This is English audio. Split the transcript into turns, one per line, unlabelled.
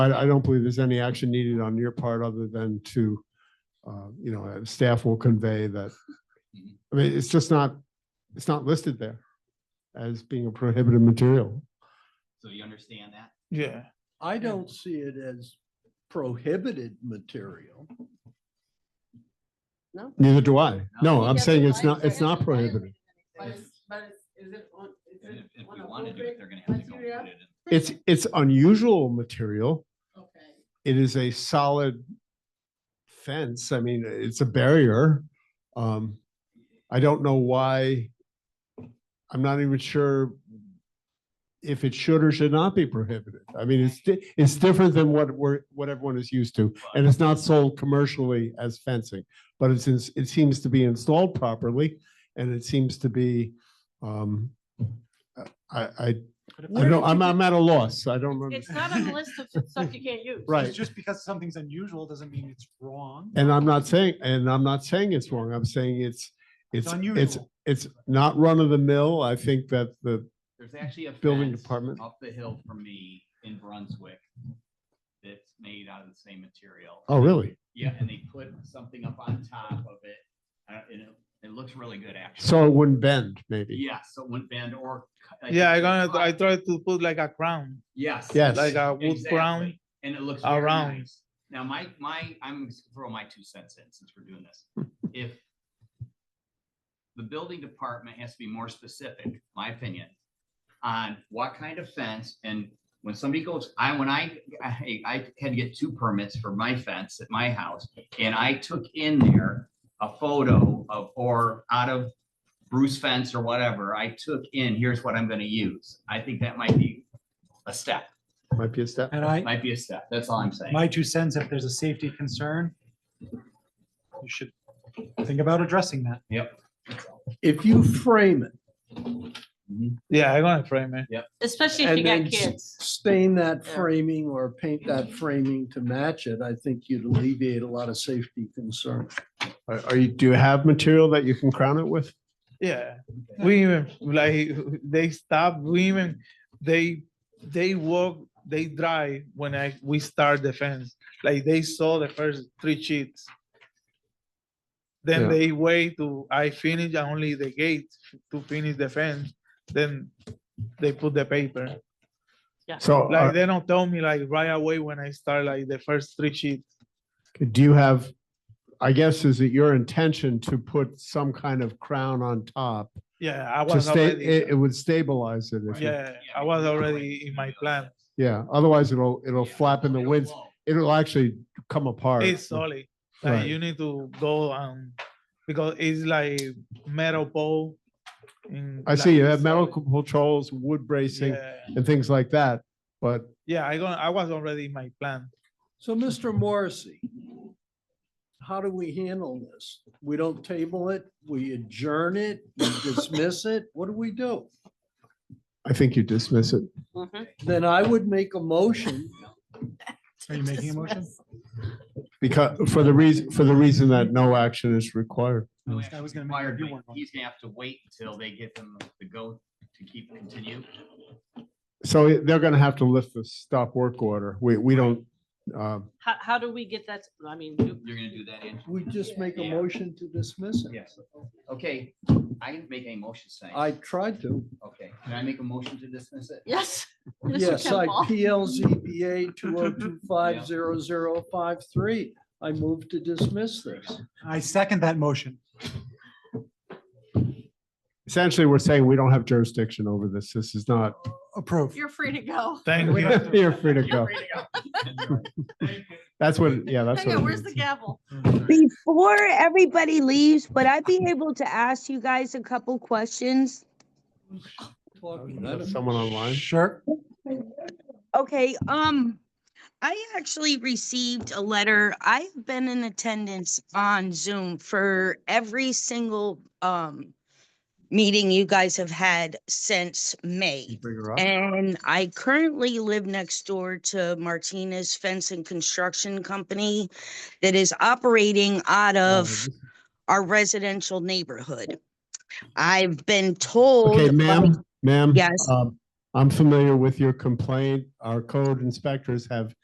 I, I don't believe there's any action needed on your part other than to, uh, you know, uh, staff will convey that. I mean, it's just not, it's not listed there as being a prohibited material.
So you understand that?
Yeah,
I don't see it as prohibited material.
Neither do I. No,
Yeah,
I'm
Yeah,
saying
but
it's
why
not,
is there
it's not
any violation
prohibited.
of
But
anything?
it's-
But is, is it on, is
And if,
it
if
on
we
a
want to do
appropriate
it, they're gonna have to go put
criteria?
it in.
It's, it's unusual material.
Okay,
It is a solid fence. I mean, it's a barrier. Um, I don't know why. I'm not even sure if it should or should not be prohibited. I mean, it's, di- it's different than what we're, what everyone is used to. And it's not sold commercially as fencing, but it's, ins- it seems to be installed properly and it seems to be, um, I, I, I don't, I'm, I'm at a loss. I don't.
It's not on the
understand.
list of stuff you can't use.
Right.
Just because something's unusual doesn't mean it's wrong.
And I'm not saying, and I'm not saying it's wrong. I'm saying it's, it's,
It's
it's,
unusual.
it's not run of the mill. I think that the,
There's actually a
Building
fence
department.
Up the hill from me in Brunswick. That's made out of the same material.
oh, really?
Yeah, and they put something up on top of it. Uh, and it, it looks really good, actually.
So it wouldn't bend, maybe.
Yeah, so one bend or. cut- like
yeah,
if
I
you
gonna, I
cut-
tried to put like a crown,
Yes.
Yes.
like a uh, wood
exactly,
crown.
And it looks very
around.
nice. Now, my, my, I'm gonna throw my two cents in since we're doing this. If the building department has to be more specific, my opinion, on what kind of fence and when somebody goes, I, when I, I, I had to get two permits for my fence at my house. And I took in there a photo of, or out of Bruce fence or whatever, I took in, here's what I'm gonna use. I think that might be a step,
Might be a step.
And I,
might be a step. That's all I'm saying.
my two cents, if there's a safety concern, you should think about addressing that.
If you frame it,
Yeah, I gonna frame it.
Especially if
And
you
then
got
s-
kids.
stain that
Yeah.
framing or paint that framing to match it, I think you'd alleviate a lot of safety concerns.
Are are you, do you have material that you can crown it with?
Yeah, we even, like, they stop, we even, they, they walk, they drive when I, we start the fence. Like, they saw the first three sheets.
Yeah.
Then they wait to, I finish only the gate to finish the fence, then they put the paper.
So uh,
Like,
are-
they don't tell me like right away when I start like the first three sheets.
do you have, I guess, is it your intention to put some kind of crown on top?
Yeah, I
To
was
stay,
already.
it, it would stabilize it. if you-
uh, Yeah, I was already in my plan.
Yeah, otherwise it'll, it'll
Yeah,
flap in the
it'll
winds.
blow.
It'll actually come apart.
It's solid.
Right.
Like you need to go um because it's like metal pole. in,
I see
like,
you have
solid.
metal controls, wood bracing
Yeah,
and things like that, but
yeah. I gonna I was already in my plan.
So, Mr. Morrissey, how do we handle this? We don't table it, we adjourn it, we dismiss it, what do we do?
I think you dismiss it.
Mhm.
Then I would make a motion
Are you making a motion?
Because, for the reason, for the reason that no action is required.
No
I
action
was gonna make
required,
you
but
one.
He's gonna have to wait until they get them the go to keep continue.
So it- they're gonna have to lift the stop work order. We, we don't, uh,
How, how do we get that? I mean, you-
You're gonna do that, Andrew?
We just make a
Yeah.
motion to dismiss it.
Yes. Okay, I didn't make any motion saying.
I tried to.
Okay, can I make a motion to dismiss it?
yes. Mr.
Yes, I
Kimball.
PLZBA two oh two five zero zero five three. I move to dismiss this.
I second that motion.
essentially, we're saying we don't have jurisdiction over this. This is not,
Approve.
You're free to go.
Thank you.
you're free to go.
You're free to go.
That's what, yeah, that's
Hang
what.
on,
it
where's the
means.
gavel?
Before everybody leaves, would I be able to ask you guys a couple questions?
Talking
Uh,
about it.
Someone online?
Sure.
Okay, um, I actually received a letter. I've been in attendance on Zoom for every single, um, meeting you guys have had since May.
Bring her up.
And I currently live next door to Martinez Fence and Construction Company that is operating out of our residential neighborhood. I've been told.
Okay,
by-
ma'am, ma'am.
Yes.
um, I'm familiar with your complaint. Our code inspectors have